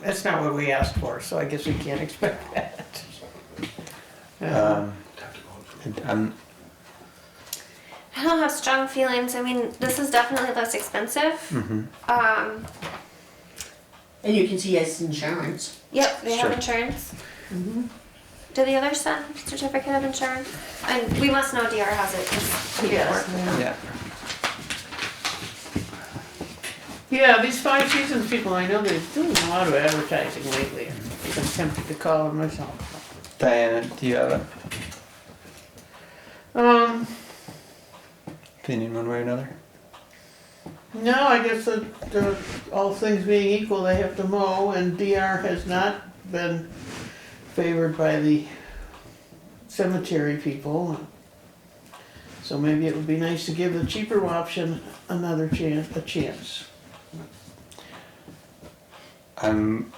That's not what we asked for, so I guess we can't expect that. Yeah. Um, I'm, I don't have strong feelings. I mean, this is definitely less expensive. mhm. Um, And you can see it's insurance. yep, they Sure. have insurance. Mm-hmm. Do the others send certificate of insurance? And we must know DR has it. 'cause we did Yes, work with them. yeah. Yeah, these Five Seasons people, I know they're doing a lot of advertising lately. I'm tempted to call them myself. Diana, uh, do you have an Um, opinion one way or another? no, I guess that, uh, all things being equal, they have to mow, and DR has not been favored by the cemetery people. So maybe it would be nice to give the cheaper option another chance, a chance. I'm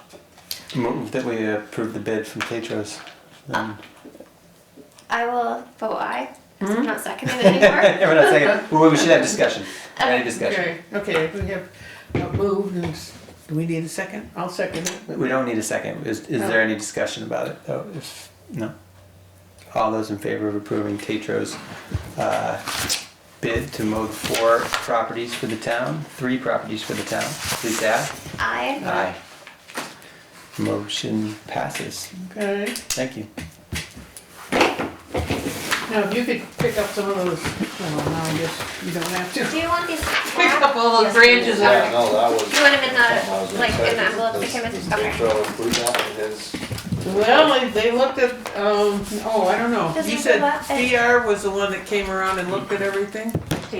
moved that we approve the bid from Tetros. Um, I will vote aye. 'cause Mm-hmm. I'm not seconding it anymore. Everyone else second. Well, we should have discussion. Any discussion? Okay, okay, we have uh, moved, and s- do we need a second? I'll second it. but- We don't need a second. Is, is there any discussion about it though? If, no? All those in favor of approving Tetros, uh, bid to mow four properties for the town, three properties for the town, please add. Aye. Aye. Motion passes. Okay, Thank you. now if you could pick up some of those, well, now I guess you don't have to. Do you want these? Pick up all those branches Yeah, that no, that was. You want them in something I was the, gonna like, in the say, envelope that this- came this in? Okay. intro and food map and his- are, well, they- they looked at, um, oh, I don't know. Does He he said go up and- DR was the one that came around and looked at everything?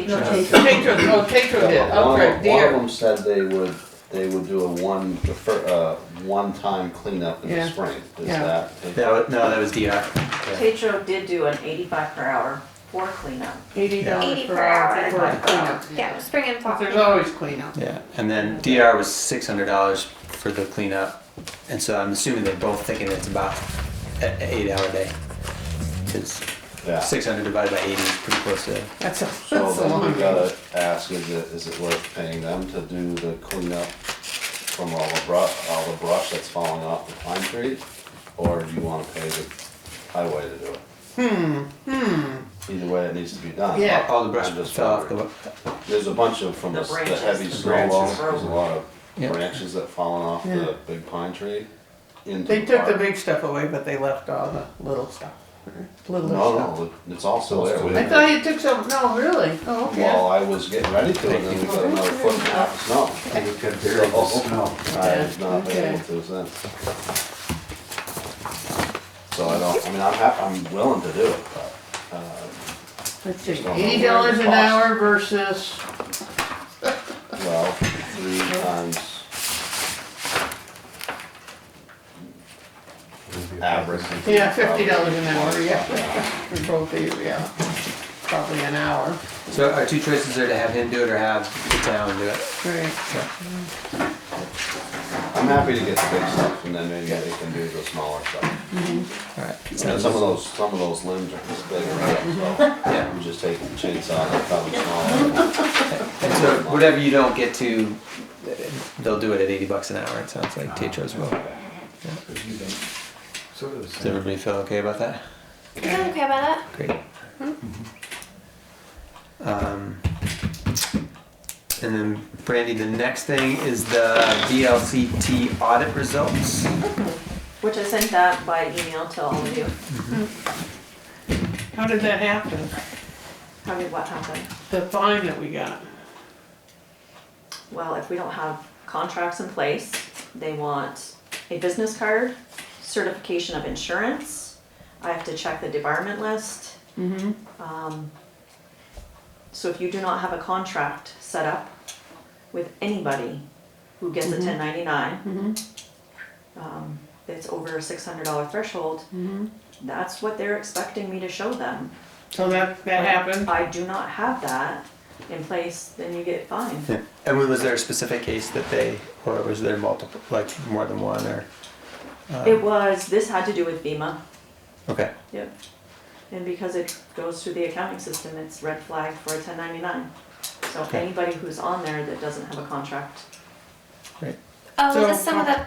No, Yeah. take- Tetro, oh, Tetro did, One okay, of- One of DR. them said they would, they would do a one, the fir- uh, one-time cleanup in Yeah. the spring, is Yeah. that? That was, no, that was DR. Tetro did do an eighty-five per hour for cleanup. Eighty dollars 80 per per hour hour. for a cleanup. Yeah, spring and fall. But there's always cleanup. Yeah, and then DR was six hundred dollars for the cleanup, and so I'm assuming they're both thinking it's about an eight-hour day. Cause Yeah. six hundred divided by eighty is pretty close to, That's a, So that's a then we long day. gotta ask, is it, is it worth paying them to do the cleanup from all the brush, all the brush that's falling off the pine tree? Or do you wanna pay the highway to do it? Hmm, hmm. Either way, it needs to be done. Yeah. all all the brush I'm just fell off wondering. the, There's a bunch of, from The the the branches, heavy the snow branches. load, there's a lot of Yeah. branches that fallen off Yeah. the big pine tree into They took the park. big stuff away, but they left all the little stuff, little stuff. No, no, it's all still there. We I didn't- thought you took some, no, really? Oh, okay. While I was getting ready to, and then we got another foot and a half of snow. And you can barely smell. I've not Okay. been able to since. So I don't, I mean, I'm hap, I'm willing to do it, but, uh, Let's see, Just don't know eighty where dollars it an costs. hour versus, well, three times average. yeah, fifty dollars an hour, Probably. yeah, for both of you, yeah, probably an hour, so our two choices are to have him do it or have the town do it. right? I'm happy to get the big stuff and then maybe they can do the smaller stuff. Alright, And sounds, some of those, some of those limbs are just bigger, so yeah. you just take the chainsaw and cut them smaller. And so whatever you don't get to, they'll do it at eighty bucks an hour, it sounds like Ah, Tetros will. Sort of the Does same. everybody feel okay about that? You feel okay about that? Great. Um, and then Brandy, the next thing is the VLCT audit results. Which I sent that by email to all of you. How did that happen, How did what happen? the fine that we got? Well, if we don't have contracts in place, they want a business card, certification of insurance. I have to check the debarment list. Um, So if you do not have a contract set up with anybody who gets a ten ninety-nine, um, that's over a six hundred dollar threshold, that's what they're expecting me to show them. So that, that happened, I do not have that in place, then you get fined. And was there a specific case that they, or was there multiple, like more than one, or? uh, It was, this had to do with FEMA, Okay, yep. And because it goes through the accounting system, it's red flag for a ten ninety-nine. So Okay. anybody who's on there that doesn't have a contract great. Oh, So- is this some of the